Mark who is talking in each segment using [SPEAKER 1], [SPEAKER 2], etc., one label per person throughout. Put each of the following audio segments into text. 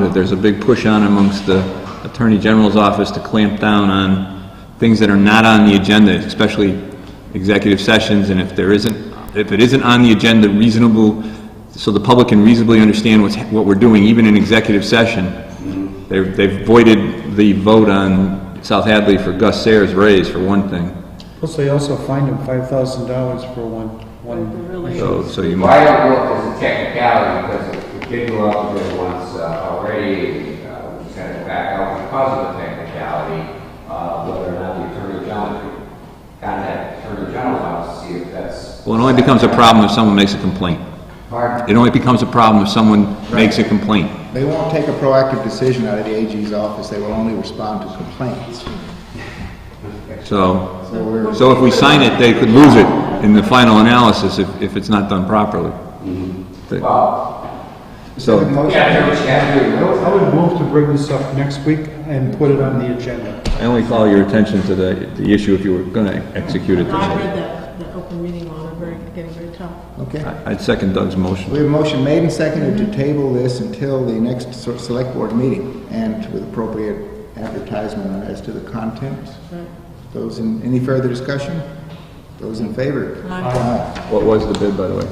[SPEAKER 1] that There's a big push on amongst the Attorney General's office to clamp down on things that are not on the agenda, especially executive sessions, and if there isn't, if it isn't on the agenda reasonable, so the public can reasonably understand what's, what we're doing, even in executive session, they've, they've voided the vote on South Hadley for Gus Sayers raise, for one thing.
[SPEAKER 2] Plus, they also fined him five thousand dollars for one, one,
[SPEAKER 1] So, so you
[SPEAKER 3] Well, I
[SPEAKER 1] might,
[SPEAKER 3] don't know if there's a technicality, because it did go out there once uh, already, uh, we sent it back out because of the technicality, uh, whether or not the Attorney General, contact the Attorney General's office to see if that's,
[SPEAKER 1] well, it only becomes a problem if someone makes a complaint.
[SPEAKER 3] pardon?
[SPEAKER 1] It only becomes a problem if someone makes a complaint.
[SPEAKER 4] They won't take a proactive decision out of the AG's office, they will only respond to complaints.
[SPEAKER 1] So,
[SPEAKER 4] So we're,
[SPEAKER 1] So if we sign it, they could lose it in the final analysis if, if it's not done properly. The-
[SPEAKER 3] Well,
[SPEAKER 1] So,
[SPEAKER 3] yeah, there was, yeah, there was.
[SPEAKER 2] I would move to bring this up next week and put it on the agenda.
[SPEAKER 1] I only call your attention to the, the issue if you were gonna execute it.
[SPEAKER 5] I
[SPEAKER 1] this
[SPEAKER 5] read that, that open meeting law, and very, getting very tough.
[SPEAKER 4] okay.
[SPEAKER 1] way. I'd second Doug's
[SPEAKER 4] We
[SPEAKER 1] motion.
[SPEAKER 4] have a motion made and seconded to table this until the next so- select board meeting and with appropriate advertisement as to the content. Those in, any further discussion? Those in favor?
[SPEAKER 5] Aye.
[SPEAKER 1] What was the bid, by the way?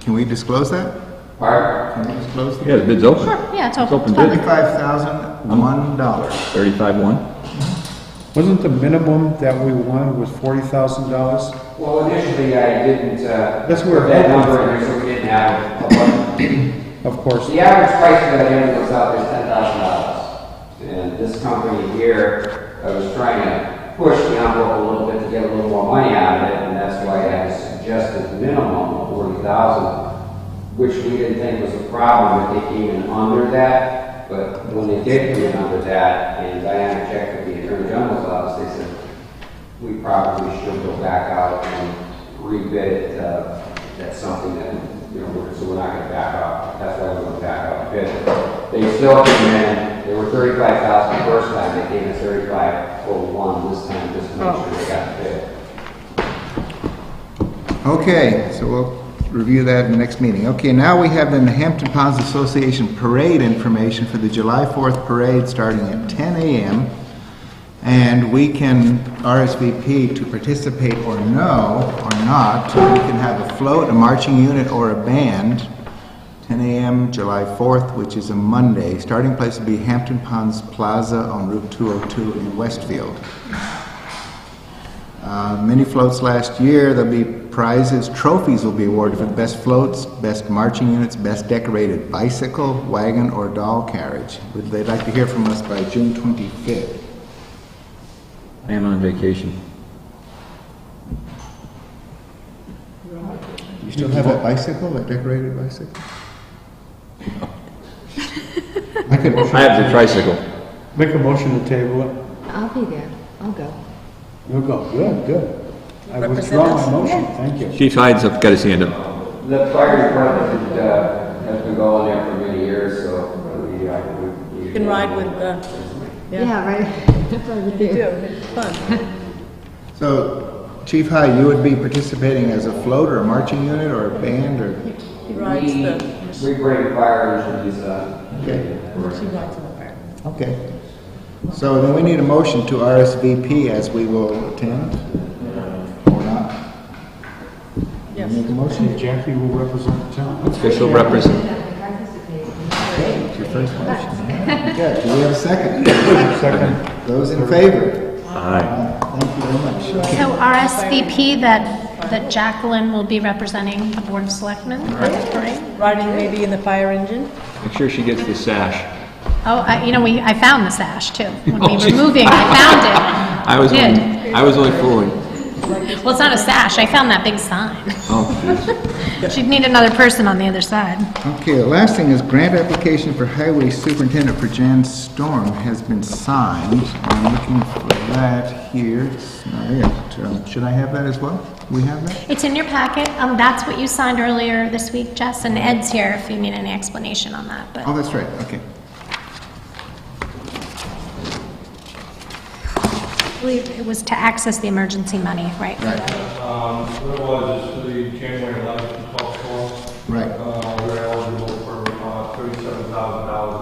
[SPEAKER 4] Can we disclose that?
[SPEAKER 3] Pardon?
[SPEAKER 4] Can we disclose that?
[SPEAKER 1] Yeah, the bid's open.
[SPEAKER 6] Yeah, it's
[SPEAKER 1] It's
[SPEAKER 6] open.
[SPEAKER 1] open bid,
[SPEAKER 4] Thirty-five thousand, one dollar.
[SPEAKER 1] thirty-five-one.
[SPEAKER 2] Wasn't the minimum that we wanted was forty thousand dollars?
[SPEAKER 3] Well, initially, I didn't, uh.
[SPEAKER 2] That's where-
[SPEAKER 3] put That number in, there, so we didn't have a budget.
[SPEAKER 2] Of course,
[SPEAKER 3] The average price for that unit was out there ten thousand dollars. And this company here, I was trying to push the envelope a little bit to get a little more money out of it, and that's why I suggested minimum of forty thousand, which we didn't think was a problem, that they came in under that, but when they did come in under that, and Diana checked with the Attorney General's office, they said, we probably should go back out and rebid it, uh, that's something that, you know, we're- so we're not gonna back out, that's why we're gonna back out bid. They still came in, they were thirty-five thousand the first time, they came in thirty-five oh one this time, just to make sure they got the bid.
[SPEAKER 4] Okay, so we'll review that in the next meeting. Okay, now we have the Hampton Ponds Association Parade information for the July 4th parade starting at 10 a.m. And we can RSVP to participate or no, or not. So We can have a float, a marching unit, or a band. 10 a.m., July 4th, which is a Monday. Starting place will be Hampton Ponds Plaza on Route 202 in Westfield. Uh, many floats last year. There'll be prizes, trophies will be awarded for the best floats, best marching units, best decorated bicycle, wagon, or doll carriage. Would they like to hear from us by June 25th?
[SPEAKER 1] I am on vacation.
[SPEAKER 4] Do you still have that bicycle, that decorated bicycle? I could.
[SPEAKER 1] I have the tricycle.
[SPEAKER 2] make a motion to table it.
[SPEAKER 6] I'll be there. I'll go.
[SPEAKER 2] You'll go, good, good. I withdraw my motion, thank you.
[SPEAKER 1] Chief Hyde's up, got his hand up.
[SPEAKER 3] The fire department, uh, has been going there for many years, so we, uh, we.
[SPEAKER 5] You can ride with, uh, yeah,
[SPEAKER 6] Yeah, right. Right with
[SPEAKER 5] you do,
[SPEAKER 6] you.
[SPEAKER 5] it's fun.
[SPEAKER 4] So, Chief High, you would be participating as a float or a marching unit or a band or?
[SPEAKER 5] He rides the,
[SPEAKER 3] We, we bring fire engines, uh,
[SPEAKER 4] Okay.
[SPEAKER 5] she rides in the car.
[SPEAKER 4] Okay. So then we need a motion to RSVP as we will attend, or not?
[SPEAKER 5] Yes.
[SPEAKER 4] Make a motion.
[SPEAKER 2] Jackie will represent the town.
[SPEAKER 1] Official represent,
[SPEAKER 4] It's your first motion. Okay, do we have a second? Second. Those in favor?
[SPEAKER 1] aye.
[SPEAKER 4] Thank you very much.
[SPEAKER 6] So RSVP that, that Jacqueline will be representing the Board of Selectmen at the parade.
[SPEAKER 5] Riding maybe in the fire engine.
[SPEAKER 1] Make sure she gets the sash.
[SPEAKER 6] Oh, I, you know, we, I found the sash too. When we
[SPEAKER 1] Oh,
[SPEAKER 6] were
[SPEAKER 1] geez.
[SPEAKER 6] moving, I
[SPEAKER 1] I
[SPEAKER 6] found
[SPEAKER 1] was
[SPEAKER 6] it.
[SPEAKER 1] only,
[SPEAKER 6] Did.
[SPEAKER 1] I was only fooling.
[SPEAKER 6] Well, it's not a sash. I found that big sign.
[SPEAKER 1] Oh, jeez.
[SPEAKER 6] She'd need another person on the other side.
[SPEAKER 4] Okay, the last thing is grant application for highway superintendent for Jan Storm has been signed. I'm looking for that here. It's not it. Um, Should I have that as well? We have that?
[SPEAKER 6] It's in your packet. Um, that's what you signed earlier this week, Jess, and Ed's here if you need any explanation on that, but.
[SPEAKER 4] Oh, that's right, okay.
[SPEAKER 6] I believe it was to access the emergency money, right?
[SPEAKER 4] Right.
[SPEAKER 7] Um, what it was is for the January eleventh Uh,